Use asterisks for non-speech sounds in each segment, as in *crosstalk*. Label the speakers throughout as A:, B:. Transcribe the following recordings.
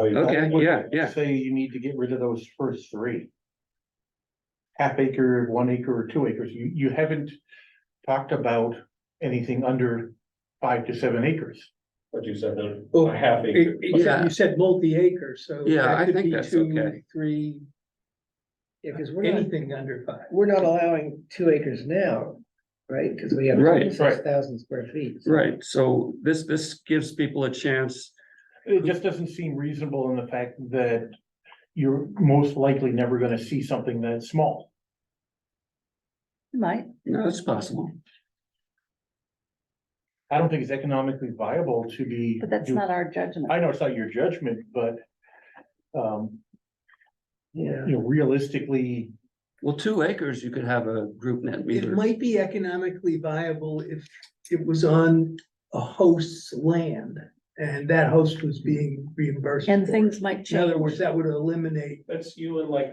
A: Okay,
B: would
A: yeah, yeah.
B: Say you need to get rid of those first three. Half acre, one acre, or two acres, you, you haven't talked about anything under five to seven acres.
C: What you said, no,
D: Well,
C: a half acre.
D: It- it- You said-
A: Yeah.
D: you said multi-acre, so.
A: Yeah,
D: that
A: I
D: could
A: think
D: be
A: that's
D: two,
A: okay.
D: Three. Yeah, because we're anything under five.
E: We're not allowing two acres now, right? Cause we have
A: Right,
E: six thousand square feet.
A: Right, so this, this gives people a chance,
B: It just doesn't seem reasonable in the fact that you're most likely never gonna see something that small.
F: Might,
A: no, it's possible.
B: I don't think it's economically viable to be.
F: but that's
B: do-
F: not our judgment.
B: I know it's not your judgment, but, um,
E: Yeah,
B: you know, realistically,
A: Well, two acres, you could have a group net
D: It
A: meter.
D: might be economically viable if it was on a host's land and that host was being reimbursed.
F: And
D: for it.
F: things might
D: In other
F: change.
D: words, that would eliminate,
C: That's you and like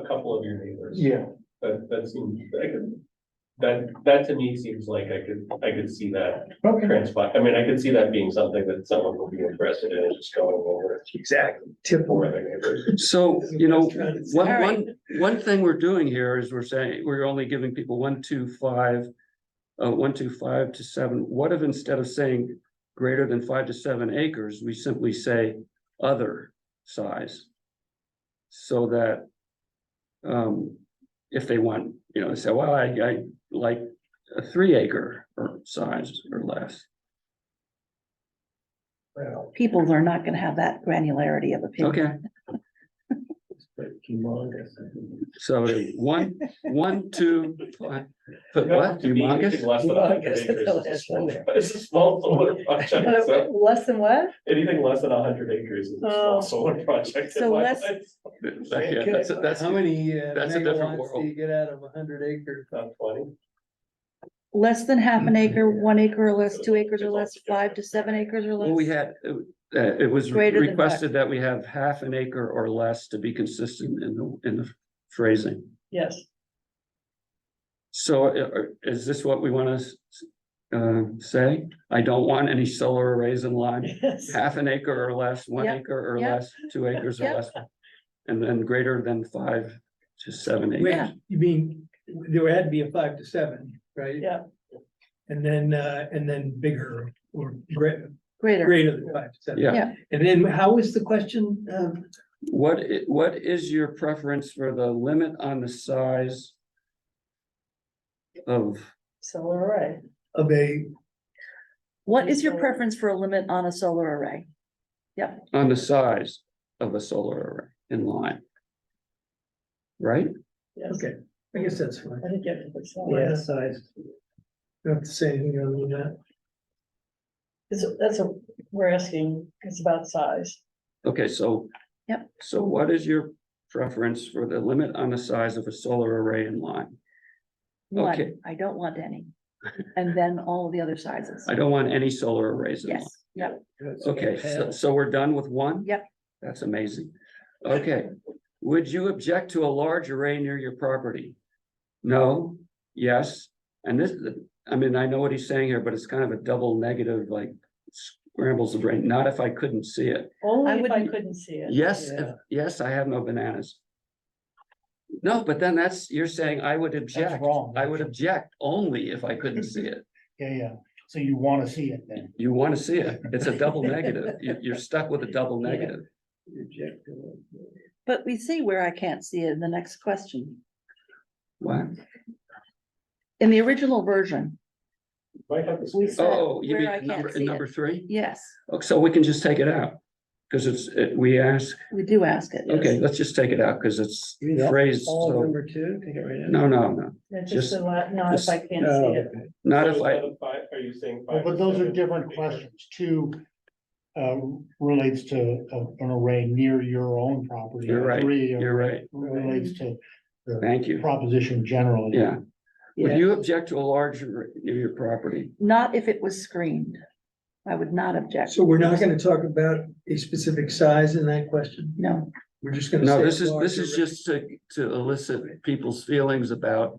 C: a couple of your neighbors.
B: yeah,
C: That, that seems, I could, that, that to me seems like I could, I could see that
B: okay.
C: transpire. I mean, I could see that being something that someone would be interested in, just going over it
D: exactly, tip
C: for
D: over.
C: their neighbors.
A: So, Oh, you know, one,
F: All right.
A: one, one thing we're doing here is we're saying, we're only giving people one, two, five. Uh, one, two, five to seven, what if instead of saying greater than five to seven acres, we simply say other size? So that. Um, if they want, you know, say, well, I, I like a three acre or size or less.
E: well,
F: People are not gonna have that granularity of opinion.
A: Okay,
E: it's pretty humongous.
A: so one, one, two, five, but
C: Yeah,
A: what,
C: to me, anything
A: humongous?
C: Less than a hundred
E: Humongous, that's the
C: acres is a small,
E: last one
C: it's a small solar project,
F: *laughs*
C: so
F: Less than what?
C: anything less than a hundred acres is a
F: Oh.
C: small solar project. in
F: So
C: my
F: less-
C: mind.
A: Yeah, that's, that's.
D: How many uh,
A: that's a different
D: megawatts
A: world.
D: do you get out of a hundred acre?
C: Not twenty.
F: Less than half an acre, one acre or less, two acres or
C: It's
F: less, five to seven acres or
A: Well, we
F: less.
A: had, uh, uh, it was
F: Greater than
A: requested that we have half an acre or less to be consistent in the, in the phrasing.
E: Yes.
A: So uh, uh, is this what we want to uh, say? I don't want any solar arrays in line,
F: *laughs*
E: Yes.
A: half an acre or less, one
F: Yep,
A: acre or
F: yep,
A: less, two acres or
F: yep.
A: less. And then greater than five to seven
D: Wait,
A: acres.
D: you mean, there had to be a five to seven, right?
E: Yeah.
D: And then, uh, and then bigger or greater,
F: Greater,
D: greater than five to seven.
A: Yeah.
F: yeah.
D: And then how is the question, um,
A: What, i- what is your preference for the limit on the size of,
E: So all right.
D: of a,
F: What is your preference for a limit on a solar array?
A: on the size of a solar array in line? Right?
E: Yes.
D: okay, I guess that's fine.
E: I think you have to put some.
D: Yeah.
E: Yeah, size.
D: Don't have to say anything other than that.
E: That's, that's a, we're asking, it's about size.
A: Okay, so.
F: Yep.
A: So what is your preference for the limit on the size of a solar array in line? Okay.
F: One, I don't want any. And then all the other sizes.
A: I don't want any solar arrays in line.
F: Yes, yeah.
A: Okay, so, so we're done with one?
F: Yep.
A: That's amazing. Okay, would you object to a large array near your property? No, yes, and this, I mean, I know what he's saying here, but it's kind of a double negative, like scrambles the brain, not if I couldn't see it.
E: Only
F: I
E: if I
F: wouldn't-
E: couldn't see it.
A: Yes, if-
E: Yeah.
A: yes, I have no bananas. No, but then that's, you're saying I would object,
B: wrong,
A: I would
B: actually.
A: object only if I couldn't see it.
B: Yeah, yeah, so you wanna see it then.
A: You want to see it, it's a double negative, you, you're stuck with a double
E: Yeah.
A: negative.
F: But we see where I can't see it in the next question.
A: What?
F: In the original version,
C: Might have to
F: we
C: speak.
F: said
A: Oh, you
F: where I
A: mean
F: can't
A: number, in
F: see
A: number
F: it.
A: three?
F: Yes,
A: Oh, so we can just take it out, because it's, it- we ask,
F: we do ask it.
A: okay, let's just take it out, because it's
E: You mean all-
A: phrased,
E: All of
A: so,
E: number two, take it right out.
A: no, no, no,
E: Yeah,
A: just-
E: Just a lot, not if I can't
D: Oh,
E: see it.
A: not
C: So
A: if
C: is
A: I,
C: that a five- Are you saying?
B: Well,
C: five
B: But
C: or
B: those are
C: seven
B: different
C: acres?
B: questions. Two uh, relates to a- an array near your own property.
A: You're right.
B: Three uh,
A: you're right,
B: relates to
A: thank you,
B: proposition generally.
A: yeah. Would
E: Yeah.
A: you object to a larger, near your property?
F: Not if it was screened. I would not object.
D: So we're not gonna talk about a specific size in that question,
F: No,
D: we're just gonna.
A: No,
D: say
A: this is, this
D: larger
A: is just to, to elicit people's feelings about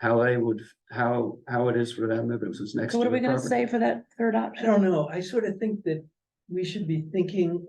A: how they would, how, how it is for them if it was next to
F: so what
A: the
F: are we gonna
A: property.
F: say for that third
D: I
F: option?
D: don't know, I sort of think that we should be thinking